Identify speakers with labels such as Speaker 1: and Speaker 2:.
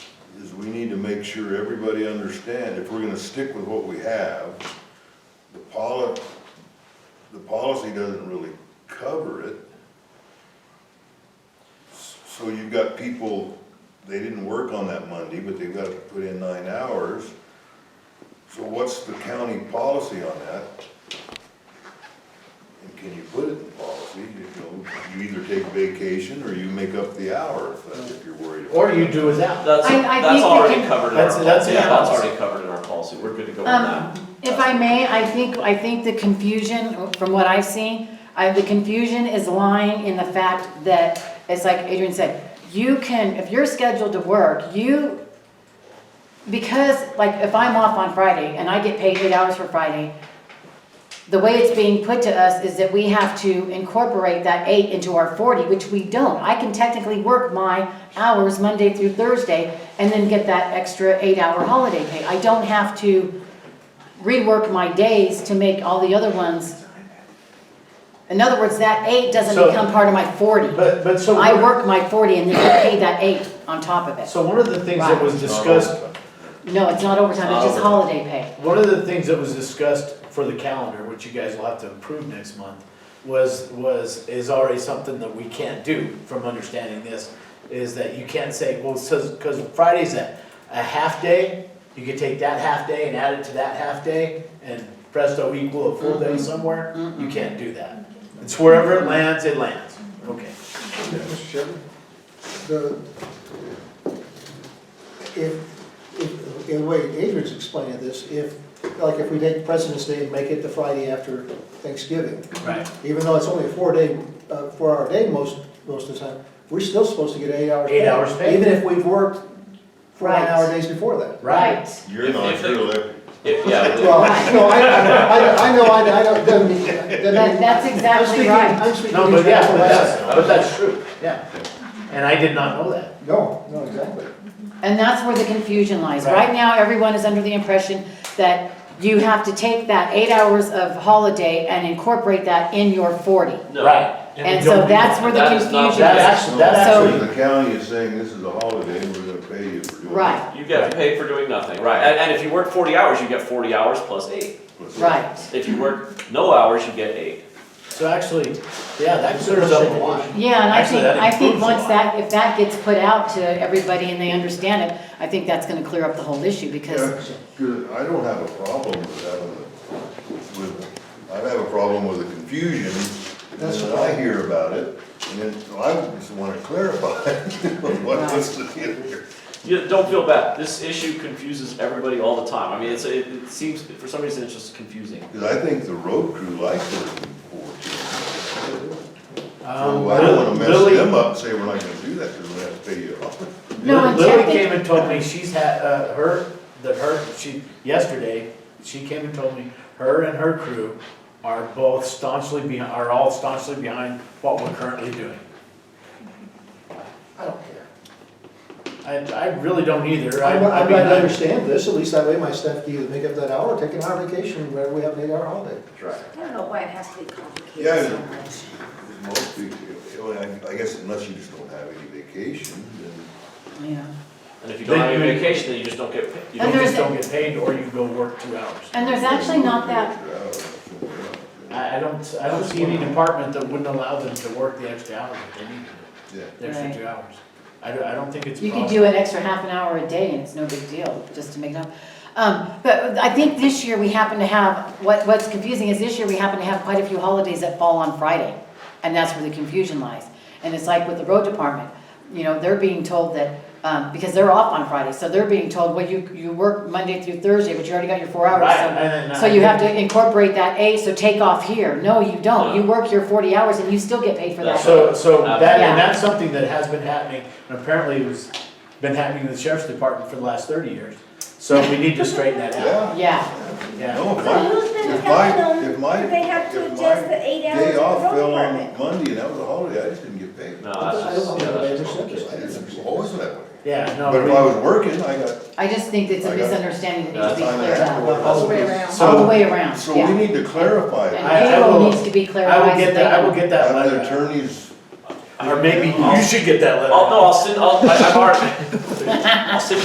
Speaker 1: make sure everybody understand, if we're gonna stick with what we have, the poli, the policy doesn't really cover it. So you've got people, they didn't work on that Monday, but they've got to put in nine hours. So what's the county policy on that? And can you put it in policy, you know, you either take vacation or you make up the hour if, that- if you're worried about.
Speaker 2: Or you do without.
Speaker 3: That's,
Speaker 4: I- I think
Speaker 3: that's
Speaker 4: we
Speaker 3: already
Speaker 4: can-
Speaker 3: covered in our,
Speaker 2: That's- that's
Speaker 3: policy.
Speaker 2: in
Speaker 3: yeah,
Speaker 2: our
Speaker 3: that's
Speaker 2: policy.
Speaker 3: already covered in our policy, we're good to go with
Speaker 4: Um,
Speaker 3: that.
Speaker 4: If I may, I think, I think the confusion, from what I've seen, uh, the confusion is lying in the fact that, it's like Adrian said, you can, if you're scheduled to work, you, because, like, if I'm off on Friday and I get paid eight hours for Friday, the way it's being put to us is that we have to incorporate that eight into our forty, which we don't. I can technically work my hours Monday through Thursday and then get that extra eight-hour holiday pay. I don't have to rework my days to make all the other ones. In other words, that eight doesn't
Speaker 2: So-
Speaker 4: become part of my forty.
Speaker 2: But, but so.
Speaker 4: I work my forty and then you pay that eight on top of it.
Speaker 2: So one of the things that was
Speaker 1: It's not
Speaker 2: discussed,
Speaker 1: overtime.
Speaker 4: No, it's not overtime, it's just
Speaker 3: Overtime.
Speaker 4: holiday pay.
Speaker 2: one of the things that was discussed for the calendar, which you guys will have to approve next month, was, was, is already something that we can't do from understanding this, is that you can't say, well, says, cause Friday's a, a half day, you could take that half day and add it to that half day, and presto equal a full day somewhere, you can't do that. It's wherever it lands, it lands, okay.
Speaker 5: Mr. Chairman, the, if, if, in the way Adrian's explaining this, if, like, if we take President's Day and make it the Friday after Thanksgiving,
Speaker 2: Right.
Speaker 5: even though it's only a four-day, uh, four-hour day most, most of the time, we're still supposed to get eight hours.
Speaker 2: Eight
Speaker 5: pay,
Speaker 2: hours pay.
Speaker 5: Even if we've worked four
Speaker 4: Right.
Speaker 5: nine-hour days before that.
Speaker 1: You're
Speaker 3: If-
Speaker 1: not,
Speaker 3: if they-
Speaker 1: you're elected.
Speaker 3: If- yeah, we-
Speaker 5: Well, I know, I, I, I know, I, I don't, doesn't mean- doesn't
Speaker 4: That-
Speaker 5: mean-
Speaker 4: that's
Speaker 5: I'm
Speaker 4: exactly
Speaker 5: speaking,
Speaker 4: right.
Speaker 5: I'm speaking.
Speaker 2: No, but yeah,
Speaker 5: from
Speaker 2: but that's,
Speaker 5: last-
Speaker 2: but that's true, yeah. And I did not know that.
Speaker 5: No, no, exactly.
Speaker 4: And that's where the confusion lies.
Speaker 2: Right.
Speaker 4: Right now, everyone is under the impression that you have to take that eight hours of holiday and incorporate that in your forty.
Speaker 3: no.
Speaker 4: And so that's where the
Speaker 3: That is not-
Speaker 4: confusion
Speaker 2: That
Speaker 4: is.
Speaker 2: actually, that
Speaker 4: So-
Speaker 2: actually,
Speaker 1: The county is saying this is a holiday, and we're gonna pay you for doing it.
Speaker 4: Right,
Speaker 3: You get paid for doing nothing, right, and, and if you work forty hours, you get forty hours plus eight.
Speaker 4: right.
Speaker 3: If you work no hours, you get eight.
Speaker 2: so actually, yeah, that clears up a lot.
Speaker 4: Yeah, and I
Speaker 2: Actually,
Speaker 4: think,
Speaker 2: that
Speaker 4: I think
Speaker 2: improves a
Speaker 4: once
Speaker 2: lot.
Speaker 4: that, if that gets put out to everybody and they understand it, I think that's gonna clear up the whole issue because,
Speaker 1: Yeah, Good, I don't have a problem with having, the- with, I have a problem with the confusion, and then I hear about it, and then so I just wanna clarify what what's the deal here.
Speaker 3: You, don't feel bad, this issue confuses everybody all the time, I mean, it's, it, it seems, for some reason, it's just confusing.
Speaker 1: Cause I think the road crew likes working fourteen.
Speaker 2: Um,
Speaker 1: So I don't wanna mess
Speaker 2: Lily-
Speaker 1: them up, and say we're not gonna do that, cause we have to pay you off.
Speaker 4: No, and
Speaker 2: Lily
Speaker 4: technic-
Speaker 2: came and told me she's had, uh, her, that her, she, yesterday, she came and told me, her and her crew are both staunchly behind, are all staunchly behind what we're currently doing.
Speaker 5: I don't care.
Speaker 2: I, I really don't either, I,
Speaker 5: I'm,
Speaker 2: I
Speaker 5: I'm
Speaker 2: mean,
Speaker 5: glad to
Speaker 2: I-
Speaker 5: understand this, at least that way my staff can either make up that hour, or take an hour vacation, whenever we have an eight-hour holiday.
Speaker 3: That's right.
Speaker 6: I don't know why it has to be complicated
Speaker 1: Yeah, I
Speaker 6: so
Speaker 1: know.
Speaker 6: much.
Speaker 1: Most people, well, I- I guess unless you just don't have any vacation, then.
Speaker 4: yeah.
Speaker 3: And if you don't have any
Speaker 2: Then-
Speaker 3: vacation, then you just don't get, paid. you
Speaker 2: You
Speaker 4: And
Speaker 3: don't,
Speaker 2: just
Speaker 4: there's-
Speaker 2: don't get paid, or you go work two hours.
Speaker 4: And there's actually not that,
Speaker 1: Yeah,
Speaker 2: I, I don't, I don't see any department that wouldn't allow them to work the extra hours that they need to, the
Speaker 4: Right.
Speaker 2: extra two hours. I don't, I don't think it's a
Speaker 4: you could
Speaker 2: problem.
Speaker 4: do an extra half an hour a day and it's no big deal, just to make it up. Um, but I think this year we happen to have, what, what's confusing is this year we happen to have quite a few holidays that fall on Friday. And that's where the confusion lies. And it's like with the road department, you know, they're being told that, um, because they're off on Friday, so they're being told, well, you, you work Monday through Thursday, but you already got your four hours.
Speaker 2: Right,
Speaker 4: so-
Speaker 2: and then
Speaker 4: So
Speaker 2: I-
Speaker 4: you have to incorporate that eight, so take off here. No, you don't. You work your forty hours and you still get paid for that.
Speaker 2: So, so that,
Speaker 4: Yeah.
Speaker 2: and that's something that has been happening, and apparently it was, been happening in the sheriff's department for the last thirty years. So we need to straighten that out,
Speaker 4: Yeah,
Speaker 2: yeah.
Speaker 1: no, if
Speaker 7: So who's
Speaker 1: my,
Speaker 7: been
Speaker 1: if my,
Speaker 7: telling
Speaker 1: if my.
Speaker 7: them they have to
Speaker 1: if
Speaker 7: adjust
Speaker 1: my
Speaker 7: the eight hours
Speaker 1: Day
Speaker 7: of the
Speaker 1: off
Speaker 7: road
Speaker 1: fell on
Speaker 7: department?
Speaker 1: Monday and that was a holiday, I just didn't get paid. I
Speaker 3: no,
Speaker 5: I
Speaker 3: that's just, Uh,
Speaker 5: don't know
Speaker 3: yeah,
Speaker 5: how they
Speaker 3: that's just.
Speaker 5: understand this. I
Speaker 1: didn't, it was
Speaker 5: didn't
Speaker 1: always that way.
Speaker 2: Yeah, no,
Speaker 1: But if I
Speaker 2: we-
Speaker 1: was working, I got
Speaker 4: I just think it's a
Speaker 1: I got-
Speaker 4: misunderstanding that needs to be
Speaker 1: time and
Speaker 4: cleared
Speaker 1: a half.
Speaker 4: up.
Speaker 1: or
Speaker 5: All the way
Speaker 1: less.
Speaker 6: around.
Speaker 4: All the
Speaker 2: so
Speaker 4: way around,
Speaker 1: So we
Speaker 4: yeah.
Speaker 1: need to clarify
Speaker 4: And
Speaker 1: that.
Speaker 2: I- I
Speaker 4: payroll
Speaker 2: will-
Speaker 4: needs to be
Speaker 2: I
Speaker 4: clarified.
Speaker 2: will
Speaker 4: so
Speaker 2: get
Speaker 4: they
Speaker 2: that, I
Speaker 4: know.
Speaker 2: will get that
Speaker 1: Have the
Speaker 2: letter,
Speaker 1: attorneys,
Speaker 2: or maybe you should get that letter.
Speaker 3: I'll, no, I'll send, I'll, I- I've already, I'll send